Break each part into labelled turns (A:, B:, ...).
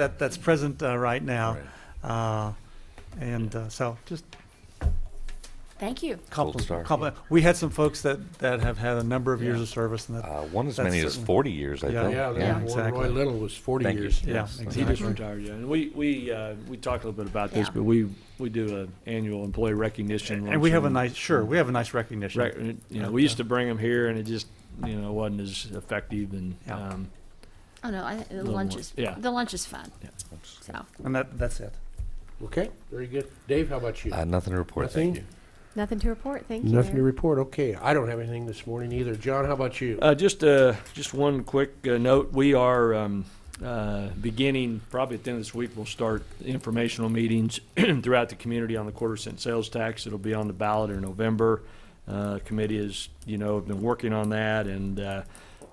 A: that, that's present uh, right now.
B: Right.
A: Uh, And uh, so just
C: Thank you.
A: compliment,
B: start, yeah.
A: compliment. We had some folks that, that have had a number of years
B: Yeah.
A: of service and that,
B: Uh, one as
A: That's
B: many as
A: certain.
B: 40 years, I
A: Yeah,
B: think.
D: Yeah,
A: yeah,
D: Roy-
A: exactly.
D: Roy Little was 40
B: Thank you.
D: years.
A: yeah,
B: Yes,
D: He just
A: exactly.
D: retired, yeah. And we, we, uh, we talked a little bit about this,
C: Yeah.
D: but we, we do an annual employee recognition.
A: And we have a
D: luncheon.
A: nice, sure, we have a nice recognition.
D: Rec- You know, we used to bring them here and it just, you know, wasn't as effective and,
A: Yeah.
D: um,
C: Oh, no, I, the
D: Little
C: lunch
D: more-
C: is,
D: yeah.
C: the lunch is fun, so.
A: And that, that's it.
E: Okay, very good. Dave, how about you?
B: Uh, nothing to report.
E: Nothing?
B: Thank you.
F: Nothing to report, thank you.
E: Nothing to
F: Mayor.
E: report, okay. I don't have anything this morning either. John, how about you?
D: Uh, just, uh, just one quick uh, note. We are, um, uh, beginning, probably at the end of this week, we'll start informational meetings throughout the community on the quarter cent sales tax. It'll be on the ballot in November. Uh, committee is, you know, have been working on that and, uh,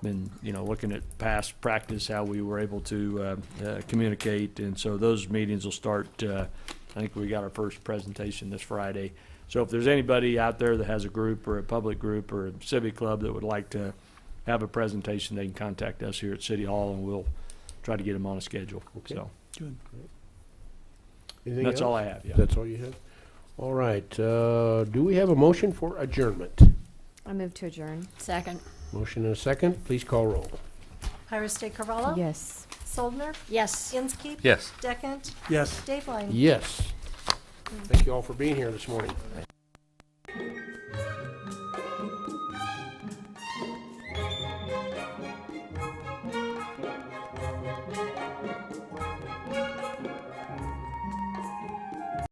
D: been, you know, looking at past practice, how we were able to, uh, uh, communicate. And so those meetings will start, uh, I think we got our first presentation this Friday. So if there's anybody out there that has a group or a public group or a civic club that would like to have a presentation, they can contact us here at City Hall and we'll try to get them on a schedule.
E: Okay.
D: So
E: Anything else?
D: that's all I have, yeah.
E: That's all you have? All right, uh, do we have a motion for adjournment?
F: I move to adjourn.
C: Second,
E: Motion and a second, please call roll.
G: Iris De Carvalho?
F: Yes.
G: Soldner?
C: yes.
G: Inskeep?
B: Yes.
G: Deckent?
A: Yes.
G: Dave Line?
E: Yes. Thank you all for being here this morning.